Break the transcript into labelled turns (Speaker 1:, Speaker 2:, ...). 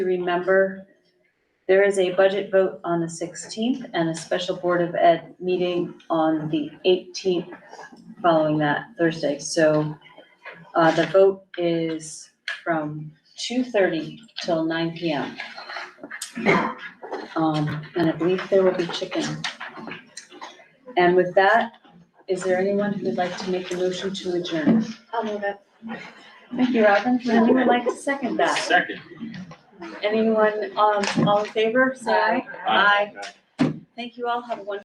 Speaker 1: remember, there is a budget vote on the sixteenth and a special Board of Ed meeting on the eighteenth following that Thursday. So uh, the vote is from two thirty till nine P M. Um, and I believe there will be chicken. And with that, is there anyone who would like to make a motion to adjourn?
Speaker 2: I'll move it.
Speaker 1: Thank you, Robin. Would anyone like to second that?
Speaker 3: Second.
Speaker 1: Anyone, um, all in favor, say aye.
Speaker 3: Aye.
Speaker 1: Thank you all, have a wonderful